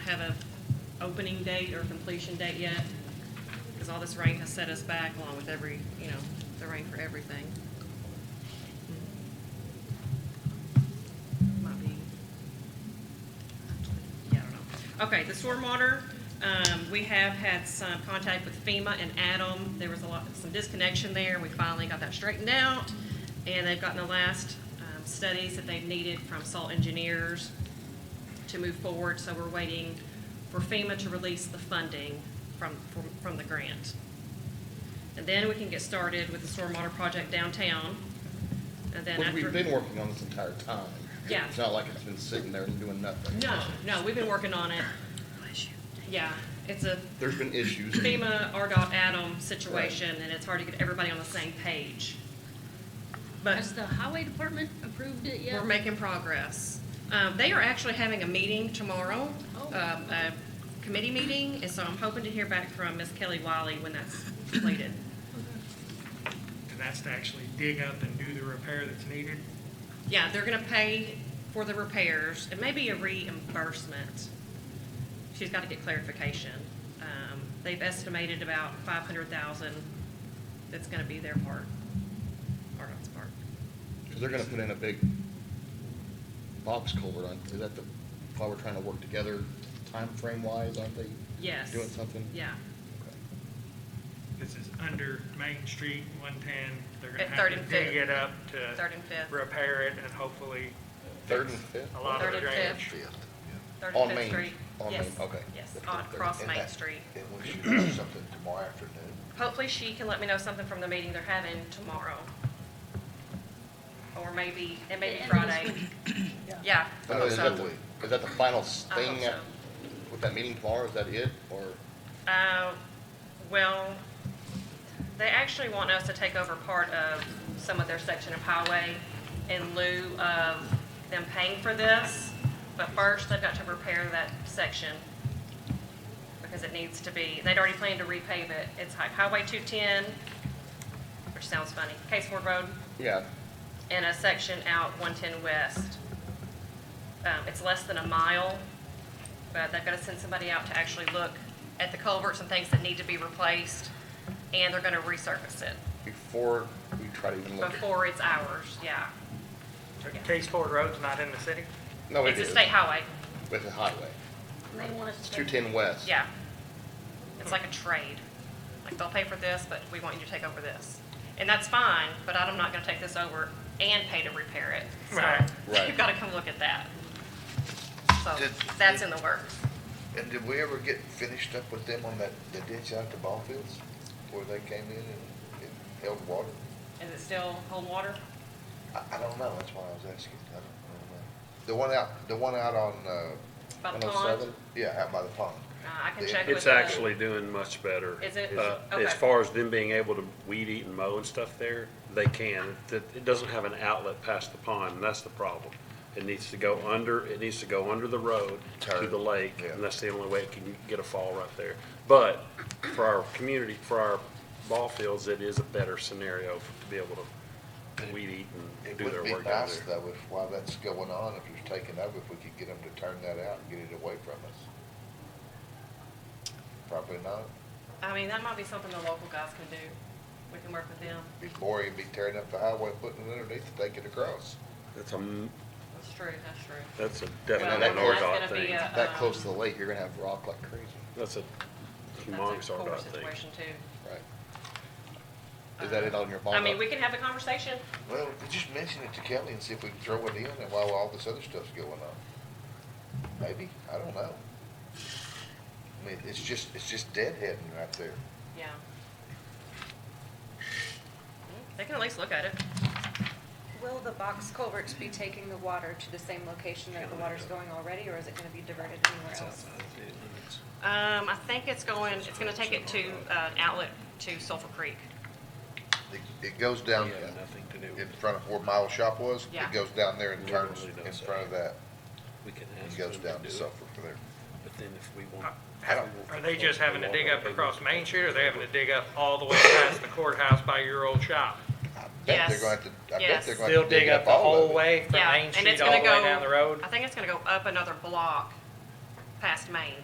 have a opening date or completion date yet, because all this rain has set us back along with every, you know, the rain for everything. Might be, yeah, I don't know. Okay, the stormwater, um, we have had some contact with FEMA and Adam. There was a lot, some disconnection there. We finally got that straightened out. And they've gotten the last, um, studies that they've needed from salt engineers to move forward. So we're waiting for FEMA to release the funding from, from, from the grant. And then we can get started with the stormwater project downtown. And then Well, after. We've been working on this entire time. Yeah. It's not like it's been sitting there doing nothing. No, no, we've been working on it. Yeah, it's a There's been issues. FEMA, RDOT, Adam situation, and it's hard to get everybody on the same page. But Has the highway department approved it yet? we're making progress. Um, they are actually having a meeting tomorrow, Oh. um, a committee meeting, and so I'm hoping to hear back from Ms. Kelly Wiley when that's completed. And that's to actually dig up and do the repair that's needed. Yeah, they're gonna pay for the repairs, and maybe a reimbursement. She's gotta get clarification. Um, they've estimated about five hundred thousand that's gonna be their part, RDOT's part. Because they're gonna put in a big box culvert on, is that the, why we're trying to work together time frame wise, aren't they? Yes. Doing something? Yeah, This is under Main Street, 110. They're At going to Third have and to dig Fifth. it up third to and fifth, repair it and hopefully Third and fix fifth? a lot of Third the and drainage. third On and fifth Main, street. on Yes. Main, okay. Yes, That's on, good. across And Main that- Street. And we should do something tomorrow afternoon. Hopefully she can let me know something from the meeting they're having tomorrow. Or maybe, it may be The end of this Friday. Yeah. I Oh, hope Is so. that the, is that the final I hope thing so. at- with that meeting tomorrow? Is that it? Or, Uh, well, they actually want us to take over part of some of their section of highway in lieu of them paying for this. But first, they've got to repair that section because it needs to be, they'd already planned to repave it. It's like Highway 210, which sounds funny, Case Ford Road, yeah, and a section out 110 West. Um, It's less than a mile, but they've got to send somebody out to actually look at the culverts and things that need to be replaced, and they're going to resurface it before we try to even look. at- before it's ours, yeah. Case Ford Road's not in the city? No, Oh, it It's a is. state highway, With the highway. And They want us It's to. two ten west. yeah. It's like a trade. Like, they'll pay for this, but we want you to take over this. And that's fine, but I'm not going to take this over and pay to repair it. Right. So Right. you've got to come look at that. So Did- that's in the works. And did we ever get finished up with them on that, the ditch out to ball fields? Where they came in and it held water? Is it still cold water? I, I don't know, that's why I was asking. I don't, I don't know. The one out, the one out on, uh, By one the oh pond? seven? Yeah, out by the pond. Uh, I can Yeah. check with It's the- actually doing much better. Is it? Uh, Okay. As far as them being able to weed eat and mow and stuff there, they can. That- It doesn't have an outlet past the pond, and that's the problem. It needs to go under, it needs to go under the road to the Turn, lake, yeah. and that's the only way it can get a fall right there. But for our community, for our ball fields, it is a better scenario to be able to weed eat and It do would their be work out nice there. though, if, while that's going on, if it's taken over, if we could get them to turn that out and get it away from us. Probably not. I mean, that might be something the local guys can do. We can work with them. Be boring, be tearing up the highway, and putting it underneath to take it across. That's a, m- That's true, that's true. that's a Well, definite an that's RDOT gonna be thing. a- That Um, close to the lake, you're gonna have rock like crazy, That's a humongous That's a poor RDOT thing. situation too. Uh, right? Is that it on your bond? I mean, we can have the conversation. Well, just mention it to Kelly and see if we can throw it in and while all this other stuff's going on. Maybe, I don't know. I mean, it's just, it's just deadheading right there. Yeah. They can at least look at it. Will the box culverts be taking the water to the same location that the water's going already, or is it gonna be diverted anywhere else? Um, I think it's going, it's gonna take it to, uh, an outlet to Sulphur Creek. It, it goes down Yeah, nothing to do with in it. front of where Mile Shop was. Yeah. It goes down there and turns Literally in does front of that. We can It ask goes them down to to do it, Suffolk from there. but then if we want. I don't- if we Are want they just to having to dig walk up over, across Main Street or are they having to dig up all the way past the courthouse by your old shop? I bet they're Yes. going to, I bet Yes. they're going They'll to dig up all of it. way Yeah, and it's gonna go- I think it's gonna go up another block past Main.